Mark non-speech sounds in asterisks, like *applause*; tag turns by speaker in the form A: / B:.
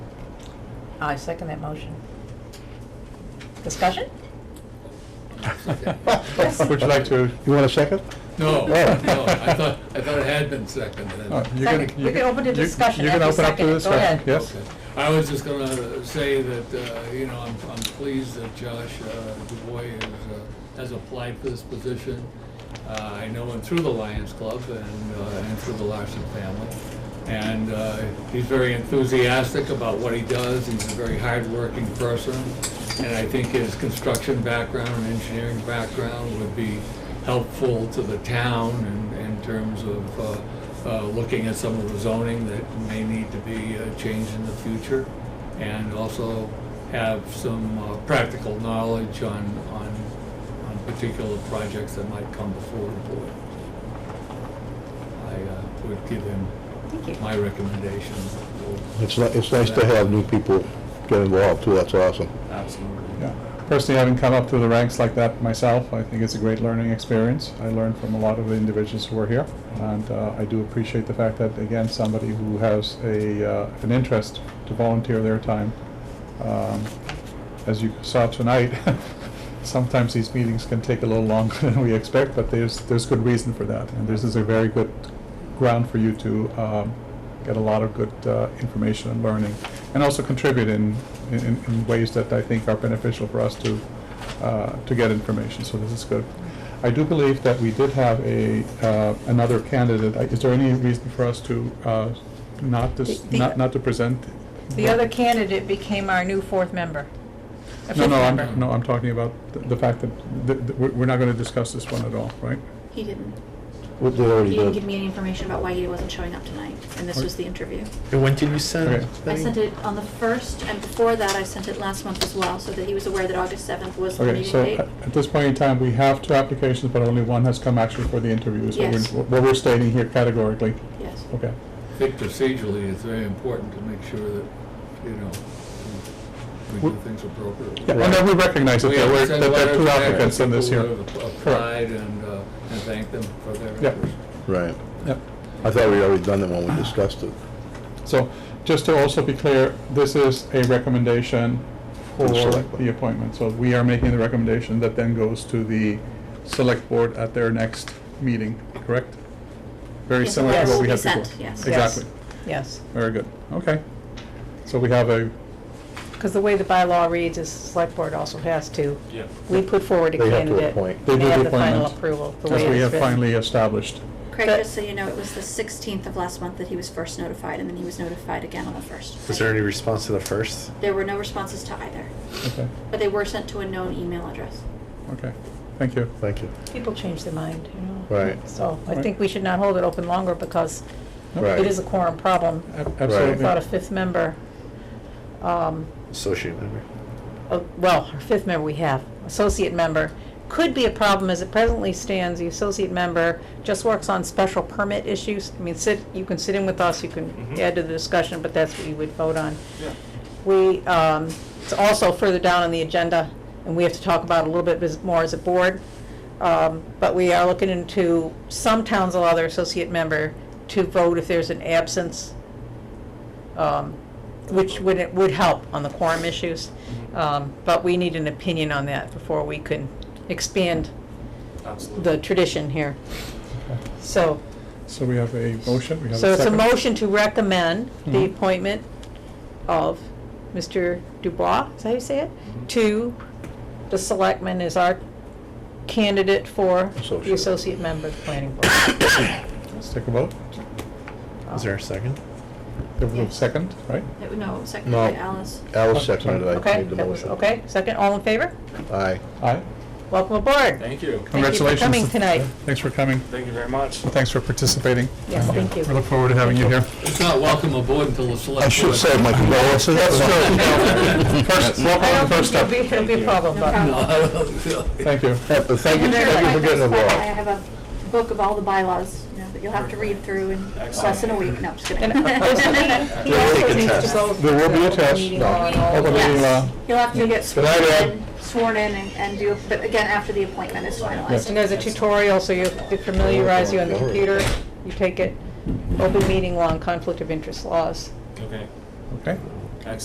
A: I second that motion. Discussion?
B: *laughs* Would you like to, you want a second?
C: No,
B: Oh.
C: no, I thought, I thought it had been seconded.
D: Uh,
B: Oh, you're gonna-
A: Second. We
B: you're
A: can
B: gonna-
A: open to
B: you're-
A: discussion
B: you're gonna
A: after
B: open up to
A: second. Go
B: discussion,
A: ahead.
B: Yes?
C: Okay. I was just gonna say that, uh, you know, I'm, I'm pleased that Josh uh, DuBois is, uh, has applied for this position. Uh, I know him through the Lions Club and, uh, and through the Larson family. And, uh, he's very enthusiastic about what he does. He's a very hardworking person. And I think his construction background and engineering background would be helpful to the town in, in terms of, uh, uh, looking at some of the zoning that may need to be uh, changed in the future, and also have some uh, practical knowledge on, on, on particular projects that might come before the board. I uh, would give him
A: Thank you.
C: my recommendation.
B: It's, ni- it's nice to have new people get involved too, that's awesome.
C: Absolutely.
D: Yeah. Personally, having come up through the ranks like that myself, I think it's a great learning experience. I learned from a lot of the individuals who were here, and uh, I do appreciate the fact that, again, somebody who has a, uh, an interest to volunteer their time. Um, As you saw tonight, *laughs* sometimes these meetings can take a little longer than we expect, but there's, there's good reason for that, and this is a very good ground for you to um, get a lot of good uh, information and learning, and also contribute in, in, in ways that I think are beneficial for us to, uh, to get information, so this is good. I do believe that we did have a, uh, another candidate, Uh, is there any reason for us to uh, not, dis-
A: The- the-
D: not, not to present?
A: The other candidate became our new fourth member. A
D: No,
A: fifth
D: no,
A: member.
D: I'm, no, I'm talking about the- the fact that, that- that we're we're not gonna discuss this one at all, right?
E: He didn't.
B: What they
E: He
B: already
E: didn't
B: did.
E: give me any information about why he wasn't showing up tonight, and this was the interview.
F: And when did you send?
D: Okay.
E: I
F: that
E: sent
F: in?
E: it uh, on the first, and before that, I sent it last month as well, so that he was aware that August seventh was the
D: Okay,
E: meeting
D: so
E: date.
D: at at this point in time, we have two applications, but only one has come actually for the interview. So
E: Yes.
D: we're- What we're stating here categorically,
E: Yes.
D: okay.
C: I think procedurally, it's very important to make sure that, you know, we do things appropriately.
D: Yeah, And then we recognize that
C: We have
D: there
C: to
D: were,
C: send
D: that there are
C: letters
D: two
C: back to
D: applicants in this
C: people
D: here.
C: who have
D: Correct.
C: Applied and, uh, and thank them for their
D: Yeah.
C: efforts.
B: Right.
D: Yep.
B: I thought we already done that when we discussed it.
D: So just to also be clear, this is a recommendation for
B: For the select board.
D: the appointment. So we are making the recommendation that then goes to the select board at their next meeting, correct? Very
E: Yes,
D: similar to
A: yes.
D: what
A: Will
D: we
A: be
D: had before.
E: sent, yes.
D: Exactly.
A: Yes,
D: Very good. Okay. So we have a,
A: because the way the bylaw reads is select board also has to.
C: Yeah.
A: We put forward a
B: They have to
A: candidate.
B: appoint.
D: they do the
A: have the final
D: appointment.
A: approval, the
D: As
A: way
D: we
A: it's
D: have
A: written.
D: finally established.
E: Craig,
A: But-
E: just so you know, it was the sixteenth of last month that he was first notified, and then he was notified again on the first.
F: Was there any response to the first?
E: There were no responses to either,
D: Okay,
E: but they were sent to a known email address.
D: okay. Thank you.
B: Thank you.
A: People change their mind, you know?
B: Right.
A: So I
D: Right.
A: think we should not hold it open longer because
D: Nope.
B: Right.
A: it is a quorum problem.
D: Ab-
A: I thought a
D: Absolutely.
A: fifth member, um,
F: Associate member.
A: oh, well, our fifth member we have, associate member, could be a problem as it presently stands. The associate member just works on special permit issues. I mean, sit, you can sit in with us, you can
F: Mhm.
A: add to the discussion, but that's what you would vote on. We, um, it's also further down on the agenda, and we have to talk about it a little bit as- more as a board. Um, but we are looking into, some towns allow their associate member to vote if there's an absence, um, which would, it would help on the quorum issues. Um, but we need an opinion on that before we can expand the tradition here. So,
D: So we have a motion, we have a second.
A: so it's a motion to recommend the
D: Mhm.
A: appointment of Mr. Dubois, is that how you say it? To the selectman as our candidate for the
B: Associate.
A: associate member of the planning board.
D: Let's take a vote.
F: Is there a second?
D: There was a
E: Yes.
D: second, right?
E: It- No, seconded
B: No.
E: by Alice.
B: Alice seconded it, I
A: Okay,
B: made the
A: that was,
B: motion.
A: okay, second, all in favor?
B: Aye.
D: Aye.
A: Welcome aboard.
C: Thank you.
D: Congratulations.
A: coming tonight.
D: Thanks for coming. Thank you very much. Thanks for participating.
A: Yes, thank you.
D: We look forward to having you here.
C: It's not welcome aboard until the select.
B: I should
C: board-
B: say my condolences.
D: First,
B: *laughs*
D: welcome
A: I
D: on
A: don't
D: the first
A: think it'll be, *laughs*
D: step.
A: it'll be a problem,
E: No
A: but
E: problem.
C: No, I don't feel-
D: Thank you.
B: Yeah, but Thank you,
E: Remember,
B: thank you
E: like
B: for getting
E: this, but I
B: involved.
E: have a book of all the bylaws, you know, that you'll have to read through in less than a week. No, I'm just kidding.
A: And *laughs*
B: *laughs*
A: there's-
E: *laughs*
A: he- he
B: There will be
A: also
B: a
A: needs to
B: test.
A: go.
D: There will be a test.
A: meeting
B: No.
A: on all of
D: Open
A: that.
D: meeting law.
E: Yes, you'll have to get
B: Good
E: sworn
B: night, Ed.
E: in, sworn in and- and do, but again, after the appointment is
A: And
E: finalized.
A: there's a tutorial, so you they familiarize you on the computer, you take it, open meeting law and conflict of interest laws.
D: Okay.